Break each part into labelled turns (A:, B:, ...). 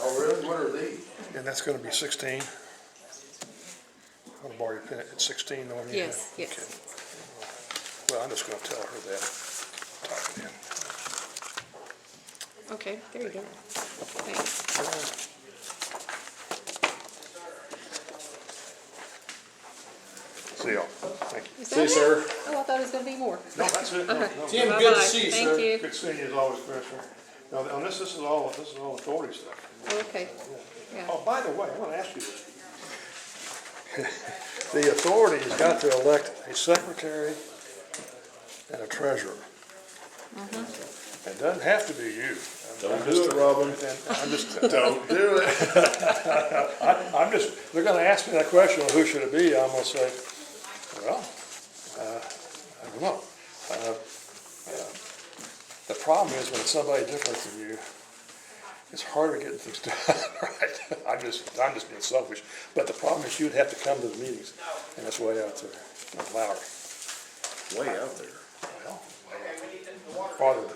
A: Oh,
B: And what are these?
C: And that's gonna be sixteen? I'm gonna borrow your pen, it's sixteen, the one you have?
D: Yes, yes.
C: Okay. Well, I'm just gonna tell her that. Type it in.
D: Okay, there you go. Thanks.
C: See y'all, thank you.
D: Is that
B: you,
D: it?
B: sir.
D: Oh, I thought it was gonna be more.
C: No, that's it, no,
D: Okay.
C: no.
B: Tim, good to
D: Bye-bye.
B: see you, sir.
D: Thank you.
C: Good seeing you as always, Commissioner. Now, on this, this is all, this is all authority stuff.
D: Okay, yeah.
C: Oh, by the way, I want to ask you this. The authority has got to elect a secretary and a treasurer.
D: Mm-hmm.
C: It doesn't have to be you.
B: Don't do it, Robin.
C: And I'm just, I'm
B: Do it.
C: I'm just, they're gonna ask me that question, well, who should it be? I'm gonna say, well, uh, I don't know. Uh, uh, The problem is when it's somebody different than you, it's harder getting things done, right? I'm just, I'm just being selfish, but the problem is you'd have to come to the meetings, and it's way out there, in Lowry.
B: Way out there.
C: Well, uh, Farther,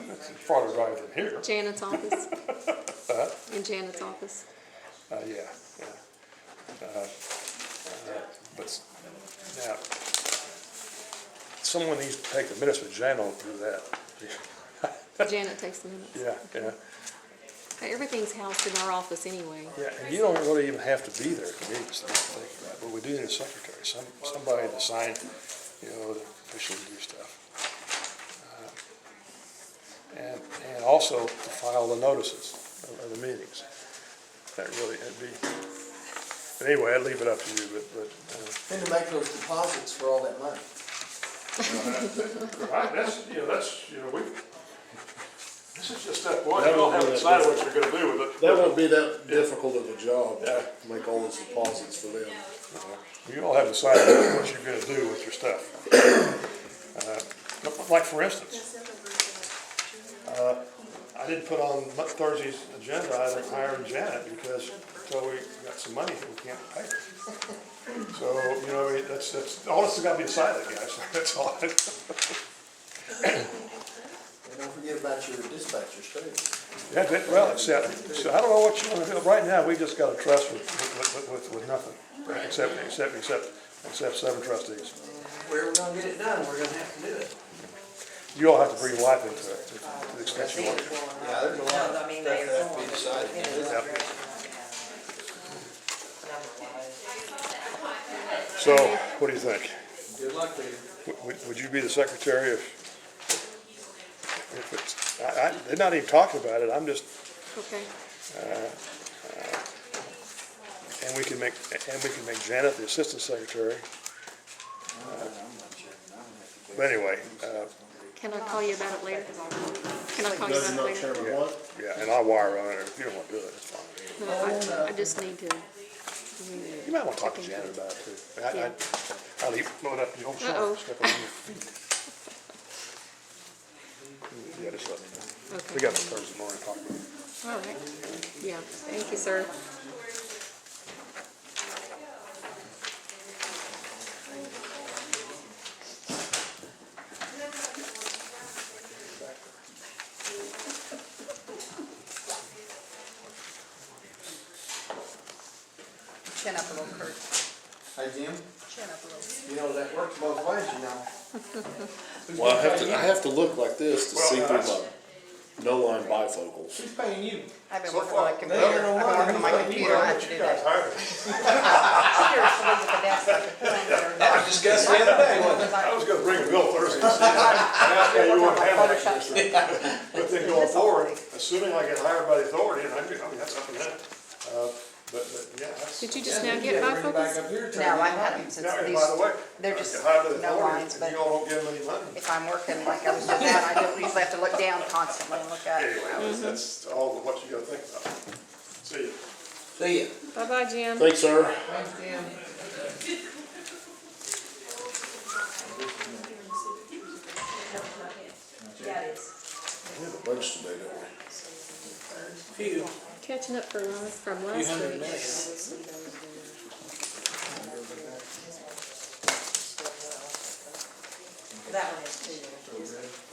C: farther drive than here.
D: Janet's office.
B: Uh-huh.
D: In Janet's office.
C: Uh, yeah, yeah. Uh, uh, But, now, someone needs to take the minutes with Jan on through that.
D: Janet takes the minutes.
C: Yeah, yeah,
D: Everything's housed in our office anyway.
C: yeah, and you don't really even have to be there at the meetings, I don't think, right? But we do need a secretary, some, somebody to sign, you know, to officially do stuff. Uh, And, and also to file the notices of- of the meetings. That really, that'd be, but anyway, I'd leave it up to you, but, but, uh,
A: And to make those deposits for all that money.
C: Right, that's, you know, that's, you know, we, this is just step one, you all have to decide what you're gonna do with
B: That won't be that difficult of a job, to make all those deposits for them.
C: it. You all have to decide what you're gonna do with your stuff. Uh, Like, for instance, uh, I didn't put on Mo- Thursday's agenda, I didn't hire Janet because until we got some money, we can't pay her. So, you know, it- that's, that's, all this has gotta be decided, guys, that's all.
A: And don't forget about your dispatchers too.
C: Yeah, that- well, except, so I don't know what you wanna do, right now, we just got a trust with, with, with, with nothing, except, except, except, except seven trustees.
E: Where we're gonna get it done, we're gonna have to do it.
C: You all have to breathe life into it, to the extent you want to.
A: Yeah, there's a lot of
E: No, I
A: stuff
E: mean,
A: that has to be
E: they're-
A: decided.
C: So, what do you think?
A: Good luck with it.
C: Would- Would, would you be the secretary if, if it's, I, I, they're not even talking about it, I'm just,
D: Okay,
C: and we can make, and we can make Janet the assistant secretary. But anyway, uh,
D: can I call you about it later? Can I call you about it later?
C: yeah, and I'll wire on it, if you don't wanna do it, it's fine.
D: No, I, I just need to.
C: You might want to talk to Janet about it too. I, I,
D: Yeah.
C: I'll leave, blow it up, you don't
D: Uh-oh.
C: step on your feet. Yeah, just let me know. We
D: Okay,
C: got the Thursday morning to talk about it.
D: all right. Yeah, thank you, sir.
F: Chin up a little, Kurt.
A: Hey, Jim,
F: Chin up a little.
A: you know, that works both ways, you know.
B: Well, I have to, I have to look like this to see through my no line bifocals.
A: Who's paying you?
F: I've been working on my computer. I've been working on my computer. I had to do that. Seriously, look at that stuff.
A: I was discussing the other day, wasn't it?
C: I was gonna bring a bill Thursday, and
F: I've been
C: you
F: working on
C: wouldn't have
F: my
C: that,
F: Photoshop. stuff.
C: but then going forward, assuming I get hired by the authority, and I do, I mean, that's up to them. Uh, but, but, yeah, that's.
D: Did you just now get my
A: Bring it back
D: focus?
A: up here, turn
F: No, I
A: it on.
F: haven't since
C: Now, and
F: these,
C: by the way.
F: they're
C: I
F: just
C: get hired by the
F: no
C: authority,
F: lines,
C: and
F: but-
C: You all don't give them any money.
F: if I'm working like I was doing that, I don't usually have to look down constantly and look at it.
C: Anyway, that's- that's all of what you gotta think about. See you.
A: See ya.
D: Bye-bye, Jim.
B: Thanks, sir.
A: Thanks, Jim.
B: We have a bunch today, don't we?
D: Catching up from last, from last week.
F: That one is too.